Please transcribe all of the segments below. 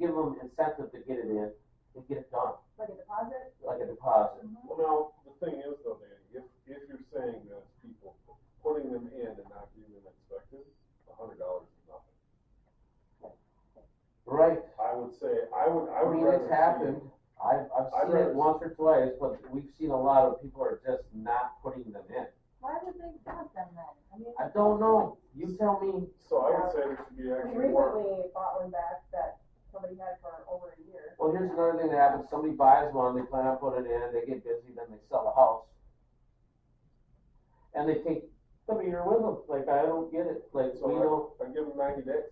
incentive to get it in and get it done, like a deposit? like a deposit. Mhm. Well, now, the thing is though, Danny, if, if you're saying that it's people putting them in and not getting them inspected, a hundred dollars is nothing. Right, I would say, I would, I I would mean, rather it's see. happened, I've, I've I'd seen rather it see- once or twice, but we've seen a lot of people are just not putting them in. Why would they dump them then? I mean. I don't know, you tell me, So I would say there should be I mean, actually more, Recently bought one back that somebody had for over a year. well, here's another thing that happens, somebody buys one, they plan on putting it in, they get busy, then they sell the house. And they take the meter with them, like, I don't get it, like, So we don't, I give them ninety days,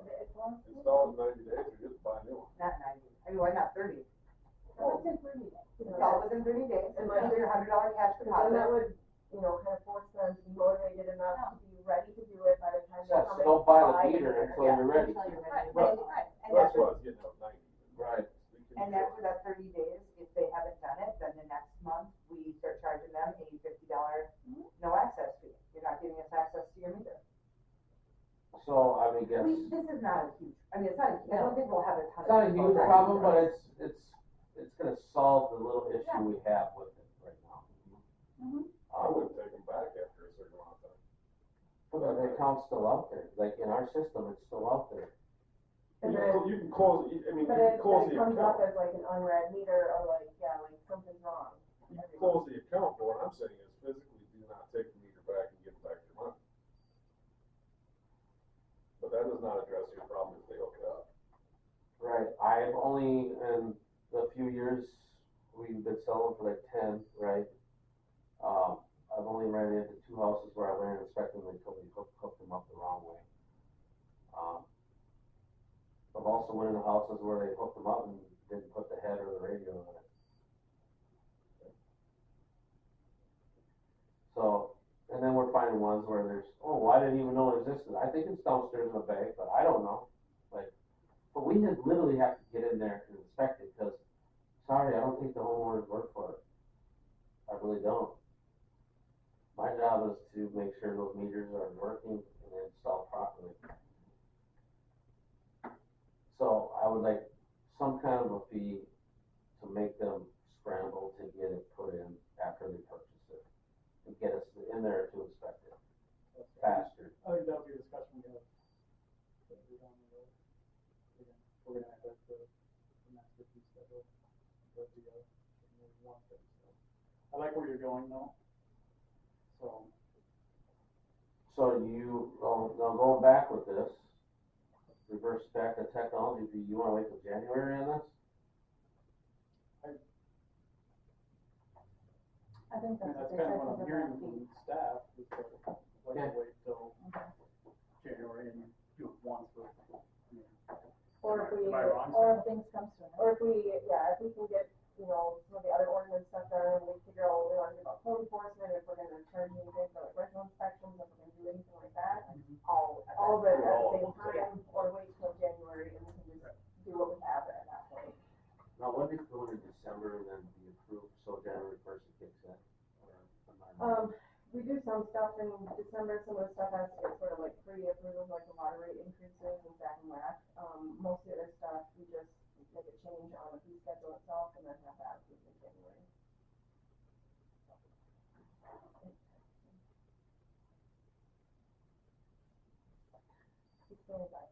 It's one, install them ninety days, or just buy a new one. Not ninety, I mean, why not thirty? What's in for me? Install within thirty days, and then your hundred dollar cash and that deposit. would, you know, kind of force them to be motivated enough to be ready to do it by the time they yeah, so come in. don't buy the buy it. meter until Yeah, you're ready. Until you're ready. Right, Well, Right, right. That's And that's, why I was getting out ninety. Right. We can and do that's it. for that thirty days, if they haven't done it, then the next month, we start charging them a fifty dollar Mhm. no access fee. You're not giving us access to your meter. So, I mean, We, guess, this is not a huge, I mean, it's not, a- I don't think we'll have a ton of. it's not a people huge that- problem, but it's, it's, it's gonna solve the little issue Yeah. we have with it right now. Mhm. I Um, wouldn't take them back after a certain amount of time. Well, the account's still out there, like in our system, it's still out there. And You then, can- You can close, you- I mean, you but can if close it the comes up account, as like an unread meter or like, yeah, like something's wrong. you can close the account, but what I'm saying is physically do not take the meter back and give it back your money. But that does not address your problem if they hook it up. Right. I've only, in the few years we've been selling for like ten, right? Um, I've only ran into two houses where I went and inspected them and totally hooked, hooked them up the wrong way. Um, I've also went into houses where they hooked them up and didn't put the head or the radio on it. So, and then we're finding ones where there's, oh, well, I didn't even know it existed. I think it's downstairs in the bank, but I don't know. But we just literally have to get in there and inspect it, because, sorry, I don't think the homeowners work for it. I really don't. My job is to make sure those meters are working and installed properly. So I would like some kind of a fee to make them scramble to get it put in after they purchase it. To get us in there to inspect it faster. I think that'll be a discussion we have. later down the road. We're gonna- We're gonna have the, the master fee schedule, but the, uh, maybe one thing, so. I like where you're going though. So, So you, oh, now going back with this, reverse back to technology, do you wanna wait till January on this? I think and that's what that's they kind said of what was about I'm hearing the- from staff, is that like Okay. to wait till Okay. January and do it once, but. I mean, Or if we, Am I wrong? or, Or if things come sooner. or if we, yeah, if we can get, you know, some of the other ordinance stuff done and we figure out what we want to do about code enforcement, if we're gonna charge anything for like rental inspections, if we're gonna do anything like that. All, all, all of it at Do the all of same them together. time, or wait till January and we can just do what we have at that point. Now, when did it go into December and then be approved, so January first it kicks in? or am I wrong? Um, we do some stuff in December, some of the stuff has to get sort of like pre-approved, like the water rate increases and that and that. Um, most of the stuff, we just make a change on the fee schedule itself and then have that approved in January. It's really bad.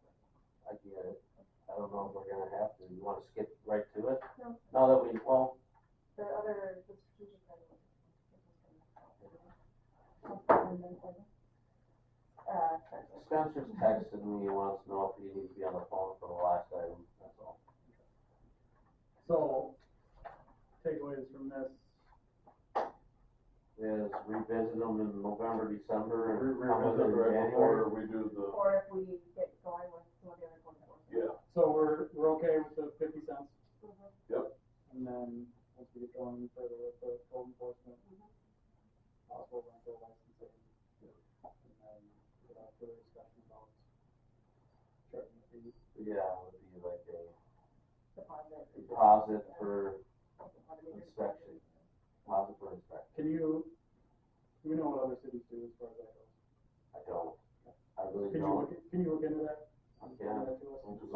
I get it, I don't know if we're gonna have to, you wanna skip right to it? No. Now that we, well, The other, the strategic plan. was- Uh, Spencer's texted me, he wants to know if he needs to be on the phone for the last item, that's all. So, takeaways from this, Is revisit them in November, December, Re- and how about revisit in right January? before we do the, or if we get going with some of the other ones that we're. yeah, so we're, we're okay with the fifty cents? Mhm. And then, once we get going further with the code enforcement, possible rental licensing. And then, without further discussion about charging fees. Yeah, it would be like a. Deposit. deposit for Inspection. inspection, deposit for inspection. Can you, you know what other cities do as far as that goes? I don't, I really Can you, don't. look- can you look into that? I Can you can't. send that to us?